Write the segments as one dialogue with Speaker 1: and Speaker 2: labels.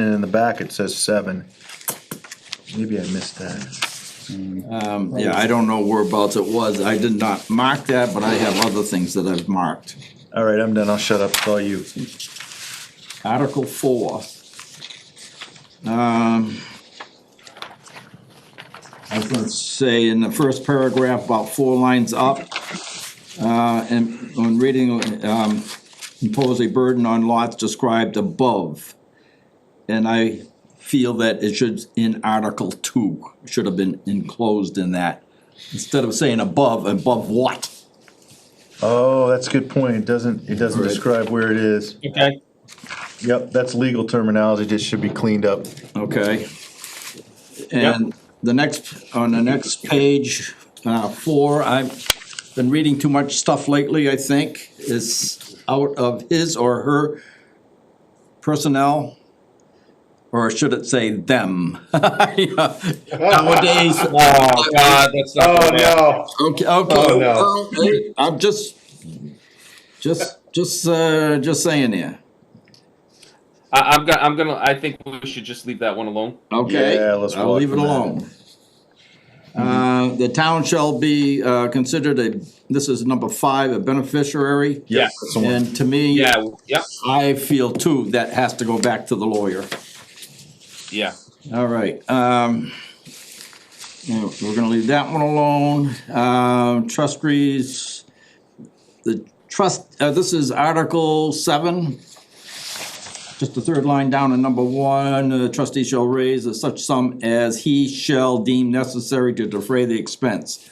Speaker 1: then in the back it says seven. Maybe I missed that.
Speaker 2: Um, yeah, I don't know whereabouts it was. I did not mark that, but I have other things that I've marked.
Speaker 1: All right, I'm done. I'll shut up. It's all you.
Speaker 2: Article four. Um, I was gonna say in the first paragraph, about four lines up, uh, and on reading, um, impose a burden on lots described above. And I feel that it should, in Article two, should have been enclosed in that. Instead of saying above, above what?
Speaker 1: Oh, that's a good point. It doesn't, it doesn't
Speaker 2: Right.
Speaker 1: describe where it is.
Speaker 3: Okay,
Speaker 1: Yep, that's legal terminology. Just should be cleaned up.
Speaker 2: Okay. And the next, on the next page, uh, four, I've been reading too much stuff lately, I think, is out of his or her personnel. Or should it say them? Nowadays, uh,
Speaker 3: oh god, that's not.
Speaker 4: Oh,
Speaker 3: gonna happen.
Speaker 4: no.
Speaker 2: okay, okay.
Speaker 4: Oh,
Speaker 2: okay, I'm just, just, just, uh, just saying here,
Speaker 3: I, I'm gonna, I'm gonna, I think we should just leave that one alone.
Speaker 2: okay?
Speaker 1: Yeah, let's
Speaker 2: I'll
Speaker 1: walk
Speaker 2: leave it
Speaker 1: from that.
Speaker 2: alone. Uh, the town shall be, uh, considered a, this is number five, a beneficiary.
Speaker 3: Yeah.
Speaker 1: That's the one.
Speaker 2: And to me,
Speaker 3: Yeah, yep,
Speaker 2: I feel too, that has to go back to the lawyer.
Speaker 3: yeah.
Speaker 2: All right, um, yeah, we're gonna leave that one alone. Um, trustees, the trust, uh, this is Article seven. Just the third line down in number one, uh, trustee shall raise a such sum as he shall deem necessary to defray the expense.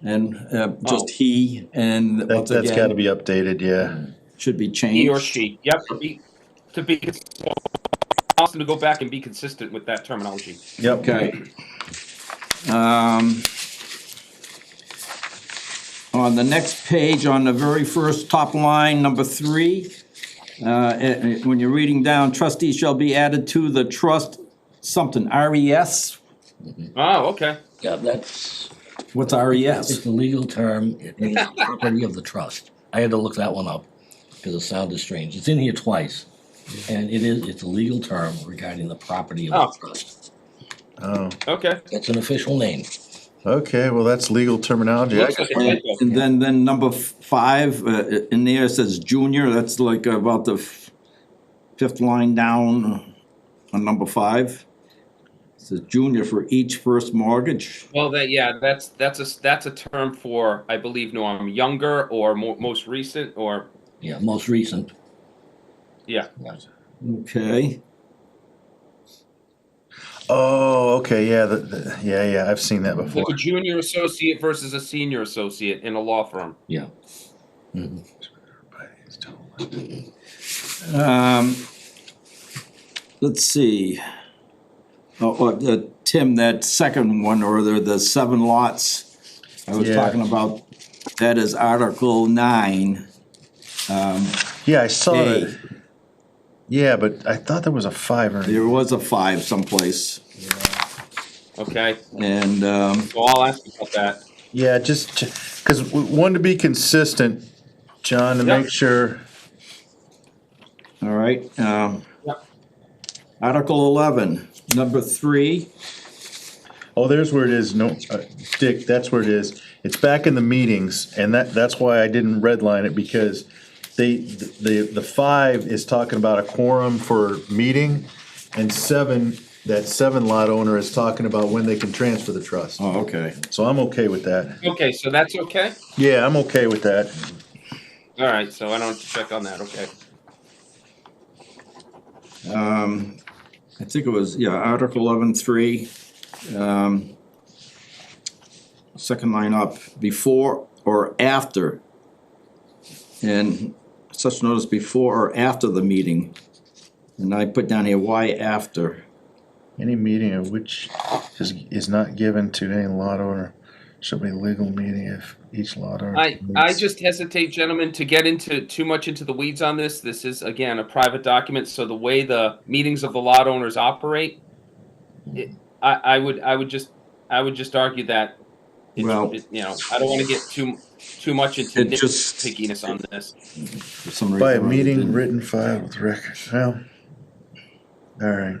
Speaker 2: And, uh, just
Speaker 3: Oh.
Speaker 2: he, and
Speaker 1: That,
Speaker 2: once
Speaker 1: that's gotta
Speaker 2: again,
Speaker 1: be updated, yeah.
Speaker 2: should be changed.
Speaker 3: He or she, yep, to be, to be, cons- ask them to go back and be consistent with that terminology.
Speaker 1: Yep.
Speaker 2: Okay. Um, On the next page, on the very first top line, number three, uh, eh, eh, when you're reading down, trustees shall be added to the trust something, E RES?
Speaker 3: Oh, okay,
Speaker 5: Yeah, that's,
Speaker 2: What's E
Speaker 5: it's
Speaker 2: RES?
Speaker 5: the legal term, it means property of the trust. I had to look that one up, because it sounded strange, it's in here twice. And it is, it's a legal term regarding the property of the
Speaker 3: Oh.
Speaker 5: trust.
Speaker 1: Oh,
Speaker 3: okay.
Speaker 5: That's an official name.
Speaker 1: okay, well, that's legal terminology. I
Speaker 3: Looks like a
Speaker 2: And
Speaker 3: typo.
Speaker 2: and then, then number f- five, uh, eh, in there it says junior, that's like about the f- fifth line down on number five. It Says junior for each first mortgage.
Speaker 3: Well, that, yeah, that's, that's a, s- that's a term for, I believe, no, I'm younger or mo- most recent or,
Speaker 5: Yeah, most recent.
Speaker 3: yeah.
Speaker 2: Okay,
Speaker 1: Oh, okay, yeah, the, the, yeah, yeah, I've seen that before.
Speaker 3: Like a junior associate versus a senior associate in a law firm.
Speaker 5: Yeah.
Speaker 2: um, let's see. Oh, oh, uh, Tim, that second one, or the, the seven lots I was
Speaker 1: Yeah.
Speaker 2: talking about, that is Article nine.
Speaker 1: Yeah, I saw
Speaker 2: Hey.
Speaker 1: it. Yeah, but I thought there was a five or
Speaker 2: There was a five someplace,
Speaker 3: Okay,
Speaker 2: and, um,
Speaker 3: so I'll ask about that.
Speaker 1: yeah, just because one to be consistent, John, to
Speaker 3: Yep.
Speaker 1: make sure.
Speaker 2: all right, um.
Speaker 3: Yep.
Speaker 2: Article eleven, number three,
Speaker 1: Oh, there's where it is. No, uh, Dick, that's where it is. It's back in the meetings, and that that's why I didn't redline it because they the the five is talking about a quorum for meeting, and seven that seven lot owner is talking about when they can transfer the trust.
Speaker 2: oh, okay.
Speaker 1: So I'm okay with that.
Speaker 3: Okay, so that's okay?
Speaker 1: Yeah, I'm okay with that.
Speaker 3: All right, so I don't have to check on that, okay.
Speaker 2: um, I think it was, yeah, Article eleven, three, um, second line up, before or after. And such notice before or after the meeting. And I put down here, why after?
Speaker 1: Any meeting of which is, is not given to any lot owner shall be legal meeting if each lot owner.
Speaker 3: I, I
Speaker 1: meets-
Speaker 3: just hesitate, gentlemen, to get into too much into the weeds on this. This is, again, a private document, so the way the meetings of the lot owners operate, it- I, I would, I would just, I would just argue that, it's-
Speaker 2: Well-
Speaker 3: it- you know, I don't want to get too, too much into
Speaker 2: It just-
Speaker 3: nitpickiness on this.
Speaker 2: For some reason.
Speaker 1: By
Speaker 2: or
Speaker 1: a
Speaker 2: other,
Speaker 1: meeting
Speaker 2: didn't-
Speaker 1: written filed with records, well, all right.